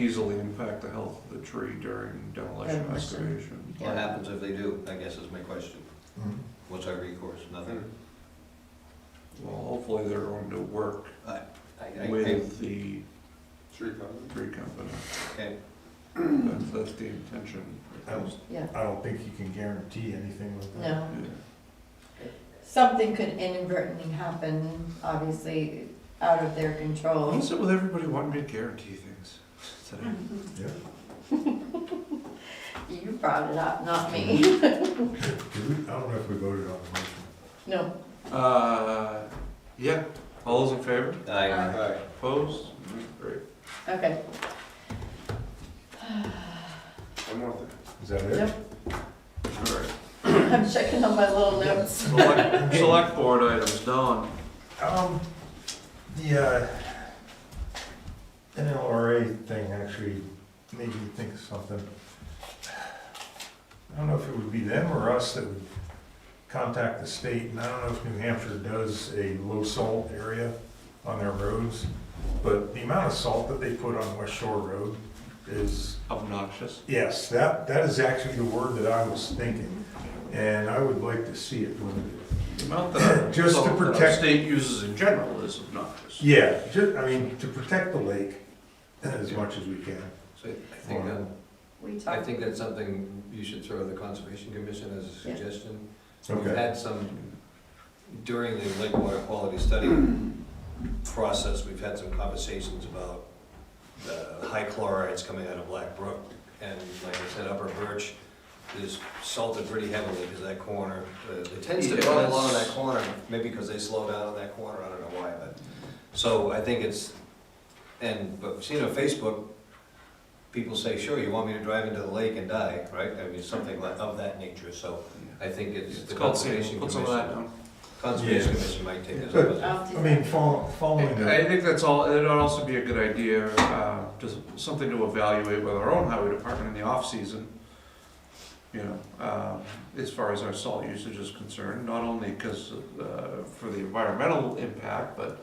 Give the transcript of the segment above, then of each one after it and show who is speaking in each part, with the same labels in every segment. Speaker 1: easily impact the health of the tree during demolition
Speaker 2: Demolition.
Speaker 1: excavation.
Speaker 2: Yeah.
Speaker 3: What happens if they do, I guess is my question.
Speaker 4: Mhm.
Speaker 3: What's our recourse? Nothing?
Speaker 1: Well, hopefully they're going to work
Speaker 3: I- I- I-
Speaker 1: with the
Speaker 5: Three thousand.
Speaker 1: tree company.
Speaker 3: Okay,
Speaker 1: That's, that's the intention.
Speaker 4: I don't,
Speaker 2: Yeah,
Speaker 4: I don't think you can guarantee anything with that.
Speaker 2: no.
Speaker 1: Yeah.
Speaker 2: Something could inadvertently happen, obviously, out of their control.
Speaker 1: What's it with everybody wanting me to guarantee things? today?
Speaker 4: Yeah.
Speaker 2: You brought it up, not me.
Speaker 4: Did we, I don't know if we voted on the motion.
Speaker 2: No,
Speaker 1: Uh, yeah, all those in favor?
Speaker 3: I,
Speaker 2: Uh,
Speaker 5: Aye.
Speaker 1: Opposed? Mm, Great.
Speaker 2: okay.
Speaker 5: One more thing.
Speaker 4: Is that
Speaker 2: Nope.
Speaker 4: it?
Speaker 1: All right.
Speaker 2: I'm checking on my little notes.
Speaker 1: Select, select board items, Don.
Speaker 4: Um, the, uh, NLRA thing actually made me think of something. I don't know if it would be them or us that would contact the state, and I don't know if New Hampshire does a low salt area on their roads, but the amount of salt that they put on West Shore Road is
Speaker 1: Obnoxious.
Speaker 4: Yes, that, that is actually the word that I was thinking, and I would like to see it limited.
Speaker 1: The amount that our,
Speaker 4: Just to
Speaker 1: that our
Speaker 4: protect-
Speaker 1: state uses in general is obnoxious.
Speaker 4: Yeah, ju, I mean, to protect the lake as much as we can.
Speaker 6: So I think that,
Speaker 2: We
Speaker 6: I
Speaker 2: talked,
Speaker 6: think that's something you should throw the Conservation Commission as a
Speaker 2: Yeah.
Speaker 6: suggestion. We've
Speaker 4: Okay,
Speaker 6: had some,
Speaker 3: during the lake water quality study process, we've had some conversations about the high chlorides coming out of Black Brook. And like I said, Upper Birch is salted pretty heavily because that corner, uh, it tends to grow a lot in that corner, maybe because they slow down in that corner, I don't know why, but. So I think it's, and, but we've seen on Facebook, people say, sure, you want me to drive into the lake and die, right? I mean, something like- of that nature, so I think it's.
Speaker 1: It's
Speaker 6: the
Speaker 1: called,
Speaker 6: Conservation
Speaker 1: put some of that
Speaker 6: Commission.
Speaker 1: down.
Speaker 3: Conservation
Speaker 4: Yes.
Speaker 3: Commission might take this
Speaker 4: But-
Speaker 3: up as a-
Speaker 2: I'll do
Speaker 4: I mean,
Speaker 2: that.
Speaker 4: fol- following
Speaker 1: I
Speaker 4: that,
Speaker 1: think that's all, it'd also be a good idea, uh, just something to evaluate with our own highway department in the off-season. You know, um, as far as our salt usage is concerned, not only because, uh, for the environmental impact, but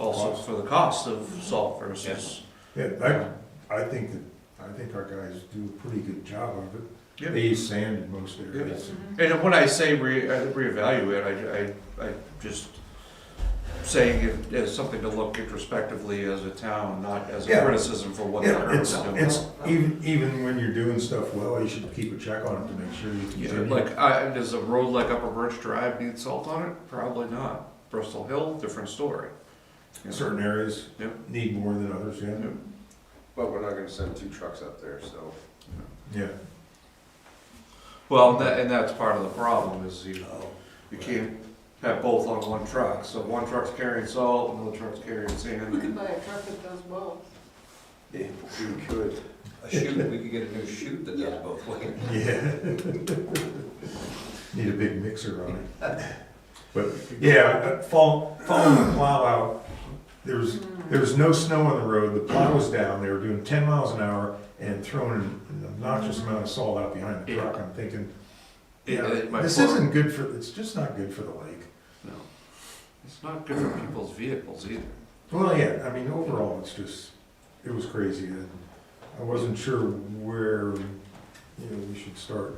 Speaker 1: also for the cost of salt versus.
Speaker 4: yeah, I, I think that, I think our guys do a pretty good job of it. They
Speaker 1: Yeah.
Speaker 4: use sand in most areas.
Speaker 2: Mhm.
Speaker 1: And when I say re, uh, reevaluate, I, I, I just saying it as something to look introspectively as a town, not as a
Speaker 4: Yeah.
Speaker 1: criticism for what the
Speaker 4: Yeah,
Speaker 1: current
Speaker 4: it's,
Speaker 1: is doing.
Speaker 4: it's, even, even when you're doing stuff well, you should keep a check on it to make sure you
Speaker 1: Yeah,
Speaker 4: continue.
Speaker 1: like, I, does a road like Upper Birch Drive need salt on it? Probably not. Bristol Hill, different story. You know,
Speaker 4: Certain areas
Speaker 1: Yeah.
Speaker 4: need more than others, yeah,
Speaker 1: Yeah.
Speaker 5: But we're not gonna send two trucks up there, so.
Speaker 4: yeah.
Speaker 1: Well, that, and that's part of the problem is you,
Speaker 3: Oh,
Speaker 1: you can't have both on one truck. So one truck's carrying salt, another truck's carrying sand.
Speaker 5: buy a truck that does both. Yeah, you could.
Speaker 3: A chute, we could get a new chute that does both ways.
Speaker 4: Yeah. Need a big mixer on it. But, yeah, uh, fall, following the plow out, there was, there was no snow on the road, the plow was down, they were doing ten miles an hour and throwing an obnoxious amount of salt out behind the truck, I'm thinking,
Speaker 1: It-
Speaker 4: yeah,
Speaker 1: it might
Speaker 4: this
Speaker 1: work.
Speaker 4: isn't good for, it's just not good for the lake.
Speaker 1: No. It's not good for people's vehicles either.
Speaker 4: Well, yeah, I mean, overall, it's just, it was crazy, and I wasn't sure where, you know, we should start.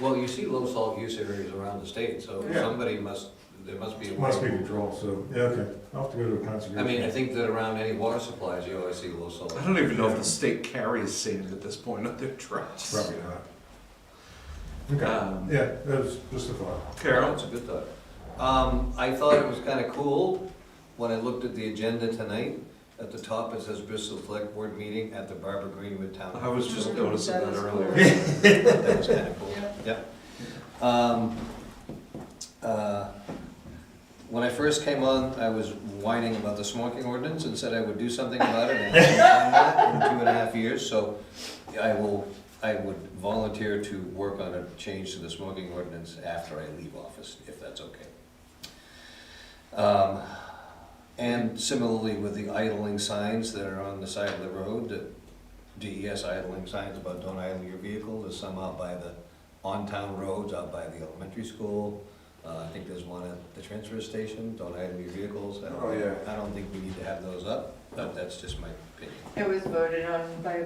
Speaker 3: Well, you see low salt use areas around the state, so
Speaker 5: Yeah.
Speaker 3: somebody must, there must be. a
Speaker 4: It must be
Speaker 3: way.
Speaker 4: control, so, yeah, okay, I'll have to go to a conservation.
Speaker 3: I mean, I think that around any water supplies, you always see low salt.
Speaker 1: I don't even know if the state carries sand at this point on their trucks.
Speaker 4: Probably not. Okay,
Speaker 1: Um,
Speaker 4: yeah, that was just a thought.
Speaker 1: Carol?
Speaker 3: That's a good thought. Um, I thought it was kinda cool when I looked at the agenda tonight. At the top, it says Bristol Select Board Meeting at the Barbara Greenwood Town.
Speaker 1: I was just noticing
Speaker 2: That
Speaker 1: that
Speaker 2: is
Speaker 1: earlier.
Speaker 2: cool.
Speaker 3: That was kind of cool, yep. Um, uh, When I first came on, I was whining about the smoking ordinance and said I would do something about it. and I haven't done that In two and a half years, so I will, I would volunteer to work on a change to the smoking ordinance after I leave office, if that's okay. Um, And similarly with the idling signs that are on the side of the road, that DES idling signs about don't idle your vehicle, there's some out by the on-town roads, out by the elementary school. Uh, I think there's one at the transfer station, don't idle your vehicles. I don't-
Speaker 5: Oh, yeah.
Speaker 3: I don't think we need to have those up, but that's just my
Speaker 2: It was voted on by